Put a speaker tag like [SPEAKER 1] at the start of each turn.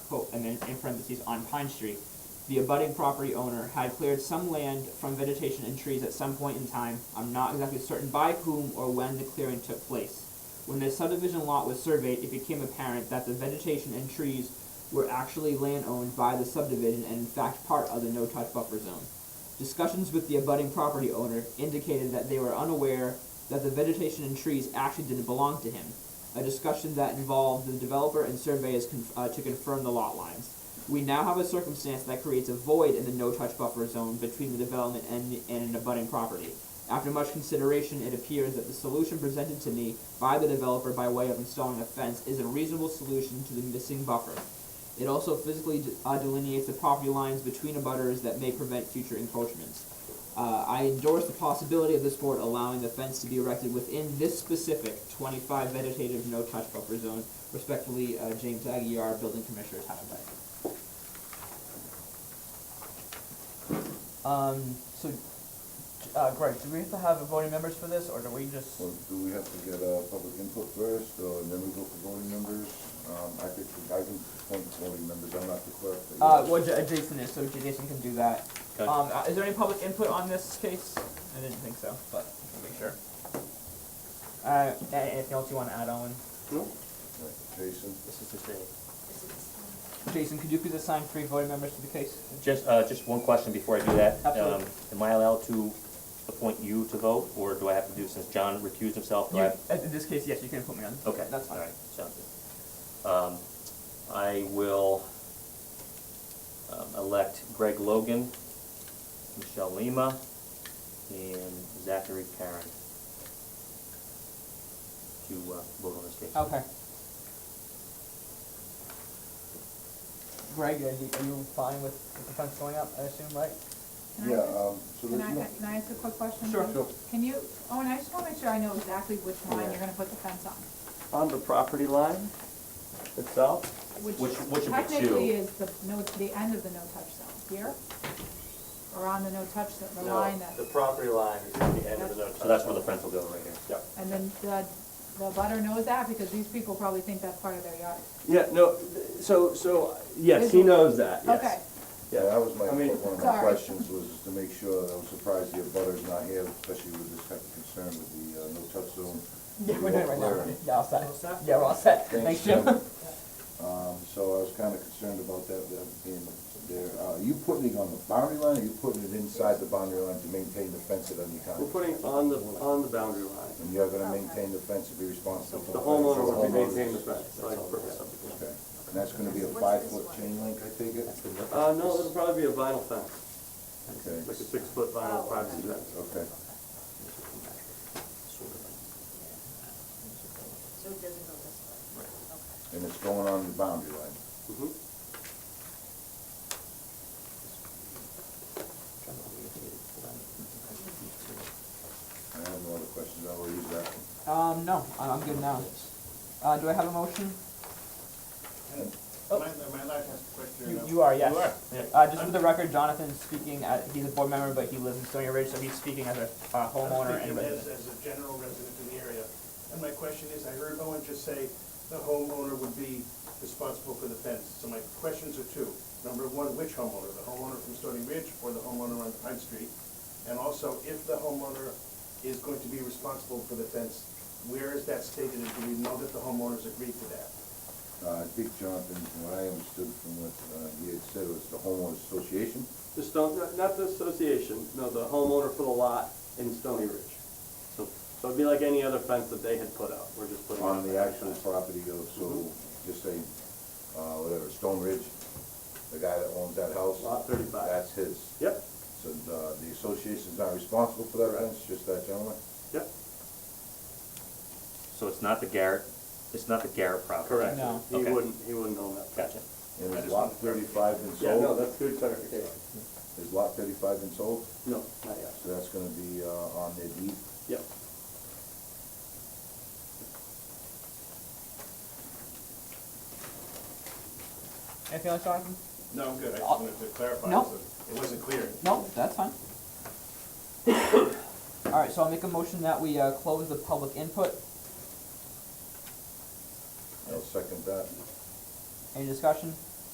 [SPEAKER 1] quote, and then in parentheses, on Pine Street, the abutting property owner had cleared some land from vegetation and trees at some point in time, I'm not exactly certain by whom or when the clearing took place. When the subdivision lot was surveyed, it became apparent that the vegetation and trees were actually land owned by the subdivision and in fact part of the no-touch buffer zone. Discussions with the abutting property owner indicated that they were unaware that the vegetation and trees actually didn't belong to him. A discussion that involved the developer and surveyors conf- uh, to confirm the lot lines. We now have a circumstance that creates a void in the no-touch buffer zone between the development and, and an abutting property. After much consideration, it appears that the solution presented to me by the developer by way of installing a fence is a reasonable solution to the missing buffer. It also physically de- uh, delineates the property lines between abutters that may prevent future encroachments. Uh, I endorse the possibility of this board allowing the fence to be erected within this specific twenty-five vegetative no-touch buffer zone. Respectfully, uh, James Aguirre, Building Commissioner, Town of Dyke. Um, so, uh, Greg, do we have to have voting members for this, or do we just?
[SPEAKER 2] Well, do we have to get, uh, public input first, or and then we go for voting members? Um, I think, I can appoint voting members, I'm not the clerk. but
[SPEAKER 1] Uh,
[SPEAKER 2] yes.
[SPEAKER 1] well, J- Jason is, so Jason can do that.
[SPEAKER 3] Okay.
[SPEAKER 1] Um, uh, is there any public input on this case? I didn't think so, but let me make sure. Uh, a- anything else you wanna add, Owen?
[SPEAKER 2] Right, Jason,
[SPEAKER 3] This is just a,
[SPEAKER 1] Jason, could you please assign three voting members to the case?
[SPEAKER 3] just, uh, just one question before I do that.
[SPEAKER 1] Absolutely.
[SPEAKER 3] Um, Am I allowed to appoint you to vote, or do I have to do, since John recused himself, do I?
[SPEAKER 1] You,
[SPEAKER 3] have-
[SPEAKER 1] uh, in this case, yes, you can put me on.
[SPEAKER 3] Oh, Okay.
[SPEAKER 1] That's fine.
[SPEAKER 3] All right, sounds good. Um, I will, um, elect Greg Logan, Michelle Lima, and Zachary Karen to, uh, vote on this case.
[SPEAKER 1] Okay. Greg, are you, are you fine with with the fence going up, I assume, right?
[SPEAKER 4] Can I
[SPEAKER 2] yeah,
[SPEAKER 4] just-
[SPEAKER 2] um, so
[SPEAKER 4] Can
[SPEAKER 2] there's
[SPEAKER 4] I,
[SPEAKER 2] no.
[SPEAKER 4] can I ask a quick question?
[SPEAKER 1] Sure.
[SPEAKER 2] Sure.
[SPEAKER 4] Can you, Owen, I just wanna make sure I know exactly which line you're gonna put the fence on,
[SPEAKER 5] on the property line itself?
[SPEAKER 3] Which-
[SPEAKER 4] which
[SPEAKER 3] which of the
[SPEAKER 4] technically
[SPEAKER 3] two?
[SPEAKER 4] is the no, the end of the no-touch zone, here? Or on the no-touch, zone, the
[SPEAKER 5] No,
[SPEAKER 4] line that,
[SPEAKER 5] the property line is at the end of the no-touch.
[SPEAKER 3] So that's where the fence will go, right here.
[SPEAKER 5] Yeah,
[SPEAKER 4] and then the, the butter knows that because these people probably think that's part of their yard.
[SPEAKER 5] yeah, no, th- so, so, yes, he knows that,
[SPEAKER 4] Okay,
[SPEAKER 5] yes.
[SPEAKER 2] Yeah, that was my,
[SPEAKER 5] I mean-
[SPEAKER 2] one of my
[SPEAKER 4] Sorry.
[SPEAKER 2] questions was to make sure, that I'm surprised the abutter's not here, especially with this type of concern with the, uh, no-touch zone.
[SPEAKER 1] Yeah, we're doing it right now.
[SPEAKER 2] Clearing.
[SPEAKER 1] Yeah, all set. Yeah, we're all set.
[SPEAKER 2] Thanks,
[SPEAKER 1] Thanks, Jim.
[SPEAKER 2] Um, so I was kinda concerned about that, that being there. Uh, are you putting it on the boundary line, or are you putting it inside the boundary line to maintain the fence at any time?
[SPEAKER 5] We're putting it on the, on the boundary line.
[SPEAKER 2] And you're gonna maintain the fence and be responsible for
[SPEAKER 5] The
[SPEAKER 2] the fence?
[SPEAKER 5] homeowner will be
[SPEAKER 2] Homeowners.
[SPEAKER 5] maintaining the fence, like,
[SPEAKER 3] That's all
[SPEAKER 5] for-
[SPEAKER 3] the subdivision.
[SPEAKER 2] Okay, and that's gonna be a five-foot chain link, I take it?
[SPEAKER 5] Uh, no, it'll probably be a vinyl fence,
[SPEAKER 2] Okay,
[SPEAKER 5] like a six-foot vinyl privacy fence.
[SPEAKER 2] okay.
[SPEAKER 6] So it doesn't go this way? Okay.
[SPEAKER 2] And it's going on the boundary line?
[SPEAKER 5] Mhm.
[SPEAKER 2] I have no other questions, I will use that one.
[SPEAKER 1] Um, no, I- I'm good now. Uh, do I have a motion?
[SPEAKER 7] Am I, am I allowed to ask a question or
[SPEAKER 1] You,
[SPEAKER 7] no?
[SPEAKER 1] Oh. you are, yes.
[SPEAKER 7] You are?
[SPEAKER 1] Uh, just for the record, Jonathan's speaking, uh, he's a board member, but he lives in Stony Ridge, so he's speaking as a, uh, homeowner
[SPEAKER 7] I'm
[SPEAKER 1] and
[SPEAKER 7] speaking as,
[SPEAKER 1] resident.
[SPEAKER 7] as a general resident in the area. And my question is, I heard Owen just say the homeowner would be responsible for the fence. So my questions are two. Number one, which homeowner? The homeowner from Stony Ridge or the homeowner on Pine Street? And also, if the homeowner is going to be responsible for the fence, where is that stated? And do we know that the homeowners agreed to that?
[SPEAKER 2] Uh, I think Jonathan, from what I understood from what, uh, he had said was the homeowners association?
[SPEAKER 5] Just don't, not- not the association, no, the homeowner for the lot in Stony Ridge. So, so it'd be like any other fence that they had put up, we're just putting. it
[SPEAKER 2] on the
[SPEAKER 5] back.
[SPEAKER 2] actual property of, so, just say, uh, whatever, Stone Ridge, the guy that owns that house.
[SPEAKER 5] Lot 35.
[SPEAKER 2] That's his.
[SPEAKER 5] Yep,
[SPEAKER 2] So, uh, the association's not responsible for that fence, just that gentleman?
[SPEAKER 5] yep,
[SPEAKER 3] So it's not the Garrett, it's not the Garrett property?
[SPEAKER 5] correct.
[SPEAKER 1] No.
[SPEAKER 5] He
[SPEAKER 3] Okay.
[SPEAKER 5] wouldn't, he wouldn't own that.
[SPEAKER 3] Gotcha.
[SPEAKER 2] And
[SPEAKER 7] I
[SPEAKER 2] is
[SPEAKER 7] just
[SPEAKER 2] lot
[SPEAKER 7] wanted to-
[SPEAKER 2] thirty-five been
[SPEAKER 5] Yeah, no,
[SPEAKER 2] sold?
[SPEAKER 5] that's good clarification.
[SPEAKER 2] Is lot thirty-five been sold?
[SPEAKER 5] No, not yet.
[SPEAKER 2] So that's gonna be, uh, on their deed?
[SPEAKER 5] Yep.
[SPEAKER 1] Anything else, Jonathan?
[SPEAKER 7] No, I'm good. I just
[SPEAKER 1] Uh,
[SPEAKER 7] wanted to clarify.
[SPEAKER 1] no.
[SPEAKER 7] so It wasn't clear.
[SPEAKER 1] No, that's fine. Alright, so I'll make a motion that we, uh, close the public input.
[SPEAKER 2] I'll second that.
[SPEAKER 1] Any discussion?